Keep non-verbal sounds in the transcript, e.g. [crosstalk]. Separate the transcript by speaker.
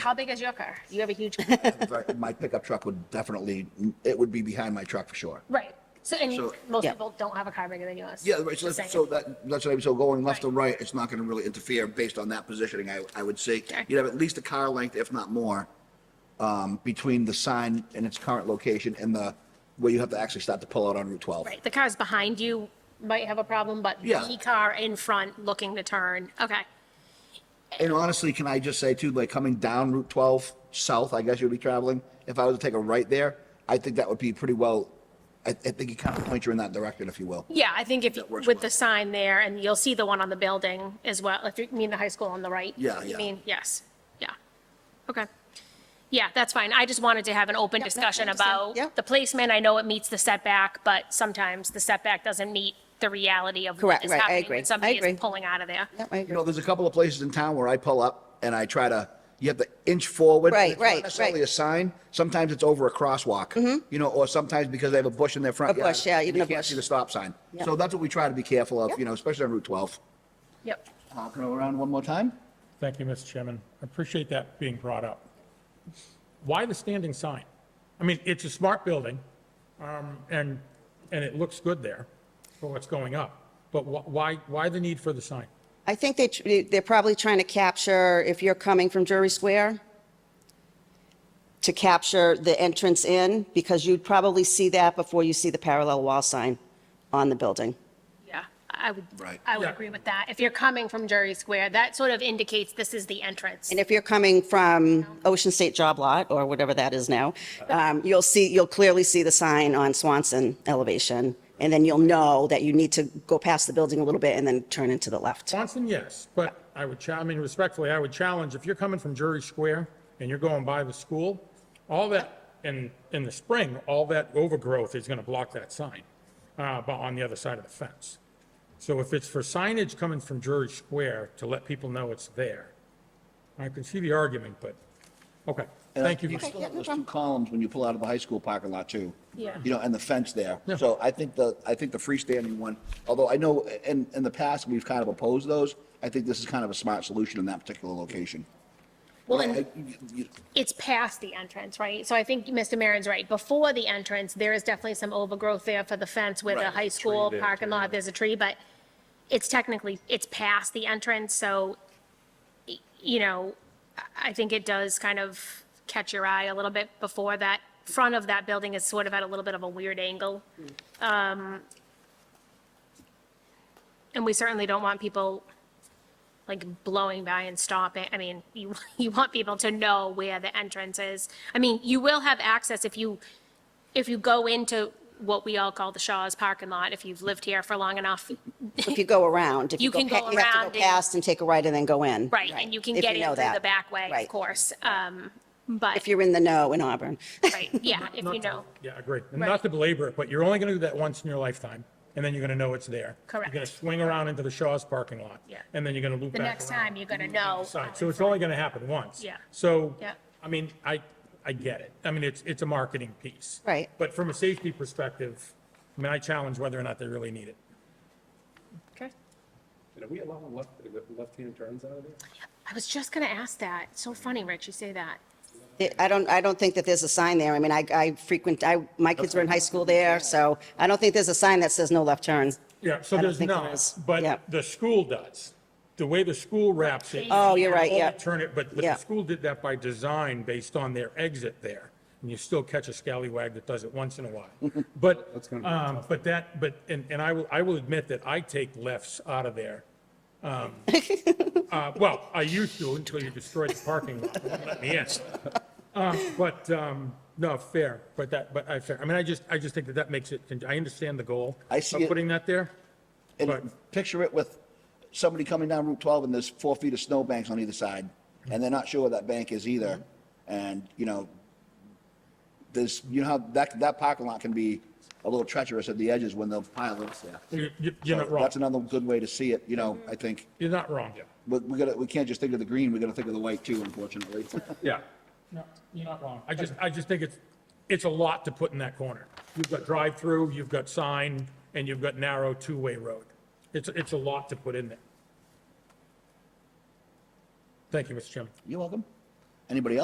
Speaker 1: How big is your car? You have a [laughs] huge,
Speaker 2: But My pickup truck would definitely, it would be behind my truck for sure.
Speaker 1: right. So, and
Speaker 2: So-
Speaker 1: most
Speaker 3: Yeah.
Speaker 1: people don't have a car bigger than yours.
Speaker 2: Yeah, right, so
Speaker 1: Just
Speaker 2: that's, so
Speaker 1: saying.
Speaker 2: that, that's what I mean, so going left
Speaker 1: Right.
Speaker 2: and right, it's not gonna really interfere based on that positioning, I, I would say.
Speaker 1: Okay.
Speaker 2: You'd have at least a car length, if not more, um, between the sign and its current location and the, where you have to actually start to pull out on Route twelve.
Speaker 1: Right, the cars behind you might have a problem, but
Speaker 2: Yeah.
Speaker 1: the car in front looking to turn, okay.
Speaker 2: And honestly, can I just say too, like coming down Route 12 south, I guess you'd be traveling. If I was to take a right there, I think that would be pretty well. I, I think you kind of point you in that direction, if you will.
Speaker 1: Yeah, I think if, you-
Speaker 2: works
Speaker 1: with
Speaker 2: well.
Speaker 1: the sign there, and you'll see the one on the building as well, if you mean the high school on the right.
Speaker 2: Yeah,
Speaker 1: You
Speaker 2: yeah.
Speaker 1: mean, yes, yeah, okay. Yeah, that's fine, I just wanted to have an open
Speaker 3: Yep, no, I
Speaker 1: discussion
Speaker 3: understand.
Speaker 1: about
Speaker 3: Yeah.
Speaker 1: the placement, I know it meets the setback, but sometimes the setback doesn't meet the reality of what
Speaker 3: Correct,
Speaker 1: is
Speaker 3: right, I
Speaker 1: happening
Speaker 3: agree.
Speaker 1: when
Speaker 3: I
Speaker 1: somebody
Speaker 3: agree.
Speaker 1: is pulling out of there.
Speaker 3: Yep, I
Speaker 2: You
Speaker 3: agree.
Speaker 2: know, there's a couple of places in town where I pull up and I try to, you have to inch forward. and
Speaker 3: Right,
Speaker 2: it's not
Speaker 3: right,
Speaker 2: Necessarily
Speaker 3: right. Mm-hmm.
Speaker 2: a sign. Sometimes it's over a crosswalk. You know, or sometimes because they have a bush in their front
Speaker 3: A
Speaker 2: yard.
Speaker 3: bush, yeah,
Speaker 2: and
Speaker 3: even
Speaker 2: you
Speaker 3: a
Speaker 2: Can't
Speaker 3: bush.
Speaker 2: see the stop sign.
Speaker 3: Yeah.
Speaker 2: So that's what we try to be careful of,
Speaker 3: Yeah.
Speaker 2: you know, especially on Route 12.
Speaker 1: Yep,
Speaker 2: Uh, Can I go around one more time?
Speaker 4: Thank you, Mr. Chairman. I appreciate that being brought up. Why the standing sign? I mean, it's a smart building, um, and, and it looks good there for what's going up, but wh- why, why the need for the sign?
Speaker 3: I think they, tr- they're probably trying to capture, if you're coming from Drury Square, to capture the entrance in, because you'd probably see that before you see the parallel wall sign on the building.
Speaker 1: yeah, I would,
Speaker 2: Right.
Speaker 1: I would
Speaker 4: Yeah.
Speaker 1: agree with that. If you're coming from Jury Square, that sort of indicates this is the entrance.
Speaker 3: And if you're coming from Ocean State Job Lot, or whatever that is now, um, you'll see, you'll clearly see the sign on Swanson elevation, and then you'll know that you need to go past the building a little bit and then turn into the left.
Speaker 4: Swanson, yes, but I would, cha- I mean, respectfully, I would challenge, if you're coming from Jury Square and you're going by the school, all that, in, in the spring, all that overgrowth is going to block that sign, uh, but on the other side of the fence. So if it's for signage coming from Jury Square to let people know it's there, I can see the argument, but, okay,
Speaker 2: And I-
Speaker 4: thank you.
Speaker 2: Uh, You still have those two columns when you pull out of the high school parking lot too.
Speaker 1: Yeah.
Speaker 2: You know, and the fence there.
Speaker 4: Yeah.
Speaker 2: So I think the, I think the freestanding one, although I know in, in the past, we've kind of opposed those. I think this is kind of a smart solution in that particular location.
Speaker 1: Well,
Speaker 2: But I-
Speaker 1: and-
Speaker 2: I- you-
Speaker 1: it's past the entrance, right? So I think Mr. Maron's right. Before the entrance, there is definitely some overgrowth there for the fence with
Speaker 2: Right,
Speaker 1: a
Speaker 2: there's a
Speaker 1: high school parking lot, there's a tree, but it's technically, it's past the entrance, so, y- you know, I- I think it does kind of catch your eye a little bit before that. Front of that building is sort of at a little bit of a weird angle. Um,
Speaker 2: Mm.
Speaker 1: And we certainly don't want people like blowing by and stopping. I mean, you, [laughs] you want people to know where the entrance is. I mean, you will have access if you, if you go into what we all call the Shaw's parking lot, if you've lived here for long enough,
Speaker 3: If you go around, if you
Speaker 1: You
Speaker 3: go,
Speaker 1: can
Speaker 3: pa-
Speaker 1: go
Speaker 3: you have
Speaker 1: around
Speaker 3: to go
Speaker 1: and-
Speaker 3: past and take a right and then go in.
Speaker 1: right? And you can
Speaker 3: if
Speaker 1: get
Speaker 3: know
Speaker 1: in through the
Speaker 3: that.
Speaker 1: back way, of
Speaker 3: Right.
Speaker 1: course. Um, but,
Speaker 3: If you're in the know in Auburn. [laughs]
Speaker 1: right, yeah, if you know.
Speaker 4: Yeah, agreed. And
Speaker 1: Right.
Speaker 4: not to belabor it, but you're only going to do that once in your lifetime, and then you're going to know it's there.
Speaker 1: Correct.
Speaker 4: You're going to swing around into the Shaw's parking lot.
Speaker 1: Yeah.
Speaker 4: And then you're going to loop
Speaker 1: The
Speaker 4: back
Speaker 1: next
Speaker 4: around.
Speaker 1: time, you're gonna know.
Speaker 4: side. So it's only going to happen once.
Speaker 1: Yeah.
Speaker 4: So,
Speaker 1: Yeah.
Speaker 4: I mean, I, I get it. I mean, it's, it's a marketing piece.
Speaker 3: Right.
Speaker 4: But from a safety perspective, I mean, I challenge whether or not they really need it.
Speaker 1: Okay.
Speaker 5: And are we allowing left, left-hand turns out of there?
Speaker 1: I was just gonna ask that. It's So funny, Rich, you say that.
Speaker 3: It- I don't, I don't think that there's a sign there. I mean, I, I frequent, I, my kids were in high school there, so I don't think there's a sign that says no left turn.
Speaker 4: Yeah,
Speaker 3: I
Speaker 4: so
Speaker 3: don't
Speaker 4: there's
Speaker 3: think there
Speaker 4: not,
Speaker 3: is. Yeah.
Speaker 4: but the school does. The way the school wraps it.
Speaker 3: Oh, you're right,
Speaker 4: you
Speaker 3: yeah.
Speaker 4: Turn it, but but the
Speaker 3: Yeah.
Speaker 4: school did that by design based on their exit there. And you still catch a scallywag that does it once in
Speaker 3: [laughs]
Speaker 4: a while. But,
Speaker 5: gonna be
Speaker 4: um, but that, but, and, and I will, I will admit that I take lefts out of there. Um, uh, Well, I used to until you destroyed the parking lot. It wouldn't Let me in. Um, But, um, no, fair, but that, but I, fair. I mean, I just, I just think that that makes it, I understand the goal.
Speaker 2: I see
Speaker 4: Of
Speaker 2: it-
Speaker 4: putting that there. Right.
Speaker 2: And picture it with somebody coming down Route 12 and there's four feet of snow banks on either side. And they're not sure where that bank is either. And, you know, there's, you know, how that, that parking lot can be a little treacherous at the edges when they'll pile up there.
Speaker 4: You- you- You're not
Speaker 2: So
Speaker 4: wrong.
Speaker 2: That's another good way to see it, you know, I think.
Speaker 4: You're not wrong.
Speaker 2: But we gotta, we can't just think of the green, we gotta think of the white too, unfortunately.
Speaker 4: Yeah. No, you're not wrong. I just, I just think it's, it's a lot to put in that corner. You've got drive-through, you've got sign, and you've got narrow two-way road. It's, it's a lot to put in there. Thank you, Mr. Chairman.
Speaker 2: You're welcome. Anybody else?